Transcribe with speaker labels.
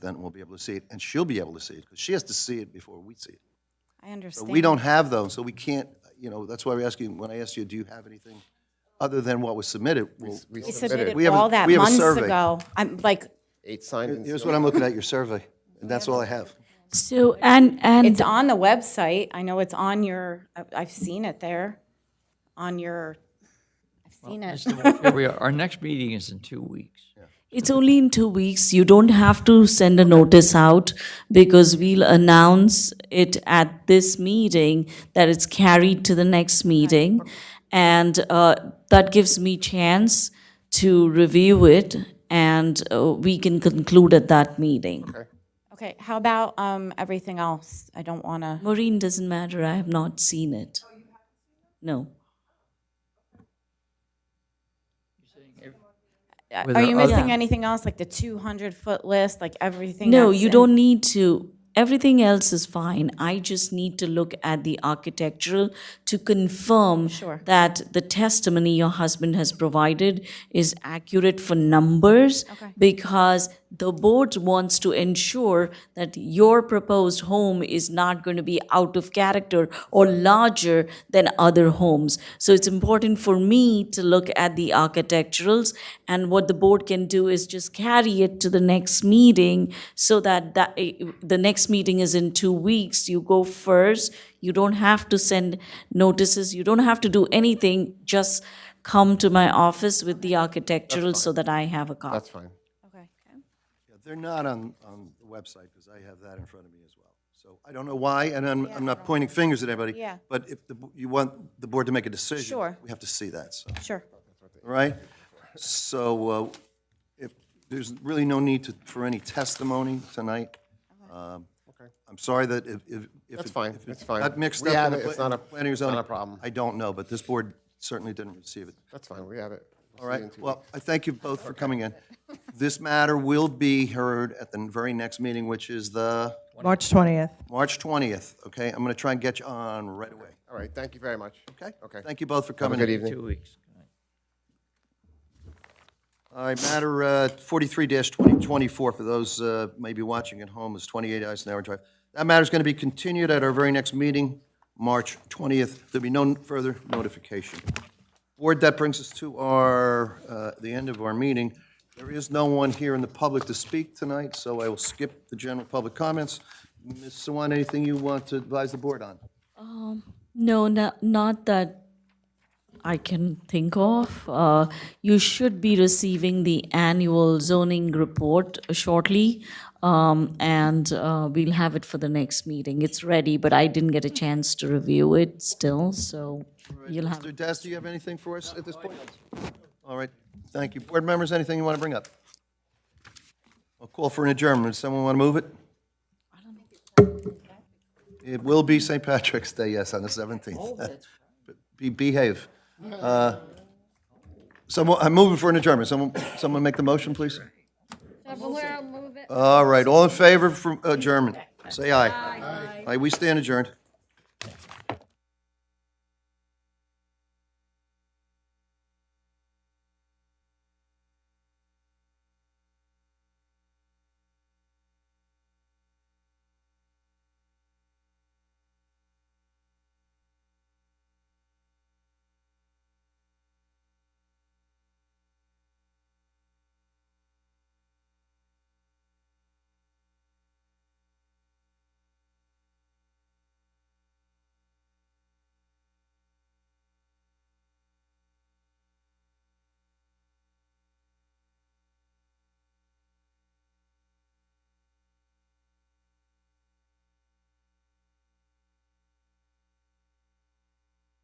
Speaker 1: then we'll be able to see it, and she'll be able to see it, because she has to see it before we see it.
Speaker 2: I understand.
Speaker 1: But we don't have those, so we can't, you know, that's why we're asking, when I asked you, do you have anything other than what was submitted? Well,
Speaker 2: We
Speaker 1: submitted.
Speaker 2: submitted
Speaker 1: We have a-
Speaker 2: all that
Speaker 1: we have a
Speaker 2: months
Speaker 1: survey.
Speaker 2: ago. I'm like,
Speaker 3: Eight signed and
Speaker 1: here's what I'm looking at, your survey, and that's all I have.
Speaker 4: So, and, and,
Speaker 2: it's on the website. I know it's on your, I- I've seen it there, on your, I've seen it.
Speaker 5: Here we are. Our next meeting is in two weeks.
Speaker 4: It's only in two weeks. You don't have to send a notice out because we'll announce it at this meeting that it's carried to the next meeting. And uh, that gives me chance to review it and uh, we can conclude at that meeting.
Speaker 2: Okay, how about um, everything else? I don't want to,
Speaker 4: Maureen, doesn't matter. I have not seen it. No.
Speaker 5: With
Speaker 2: are
Speaker 5: our
Speaker 2: you
Speaker 5: other-
Speaker 2: missing anything else, like the 200-foot list, like everything?
Speaker 4: No,
Speaker 2: that's
Speaker 4: you
Speaker 2: in-
Speaker 4: don't need to. Everything else is fine. I just need to look at the architectural to confirm
Speaker 2: Sure.
Speaker 4: that the testimony your husband has provided is accurate for numbers because the board wants to ensure that your proposed home is not going to be out of character or larger than other homes. So it's important for me to look at the architecturals and what the board can do is just carry it to the next meeting so that that, eh, the next meeting is in two weeks. You go first, you don't have to send notices, you don't have to do anything, just come to my office with the architectural so that I have a copy.
Speaker 3: That's fine.
Speaker 2: Okay.
Speaker 1: Yeah, They're not on, on the website, because I have that in front of me as well. So I don't know why, and I'm, I'm not pointing fingers at anybody.
Speaker 2: Yeah.
Speaker 1: But if the bo- you want the board to make a decision.
Speaker 2: Sure.
Speaker 1: We have to see that, so.
Speaker 2: Sure.
Speaker 1: All right? So uh, if, there's really no need to, for any testimony tonight. Um, I'm sorry that if, if. if
Speaker 3: That's
Speaker 1: it-
Speaker 3: fine,
Speaker 1: if it
Speaker 3: that's fine.
Speaker 1: Got mixed
Speaker 3: We
Speaker 1: up. in
Speaker 3: have
Speaker 1: the
Speaker 3: it,
Speaker 1: pla-
Speaker 3: it's not a-
Speaker 1: planning or
Speaker 3: it's not
Speaker 1: zoning,
Speaker 3: a problem.
Speaker 1: I don't know, but this board certainly didn't receive it.
Speaker 3: That's fine, we have it.
Speaker 1: All right, well, I thank you both for coming in. This matter will be heard at the very next meeting, which is the
Speaker 6: March 20th.
Speaker 1: March 20th, okay? I'm going to try and get you on right away,
Speaker 3: All right, thank you very much.
Speaker 1: okay?
Speaker 3: Okay.
Speaker 1: Thank you both for
Speaker 3: Have a
Speaker 1: coming in.
Speaker 3: good evening.
Speaker 5: Two weeks.
Speaker 1: All right, matter uh, 43-2024, for those uh, maybe watching at home, is 28 Eisenhower Drive. That matter's going to be continued at our very next meeting, March 20th. There'll be no further notification. Board, that brings us to our, uh, the end of our meeting. There is no one here in the public to speak tonight, so I will skip the general public comments. Ms. Swan, anything you want to advise the board on?
Speaker 4: No, not, not that I can think of. Uh, You should be receiving the annual zoning report shortly, um, and uh, we'll have it for the next meeting. It's ready, but I didn't get a chance to review it still, so you'll have.
Speaker 1: Mr. Des, do you have anything for us at this point? All right, thank you. Board members, anything you want to bring up? I'll call for an adjournment. Does someone want to move it? It will be St. Patrick's Day, yes, on the 17th. Be- Behave. Uh, Someone, I'm moving for an adjournment. Someone, someone make the motion, please?
Speaker 7: Valero, move it.
Speaker 1: All right, all in favor for adjournment? Say aye. Aye. we stand adjourned.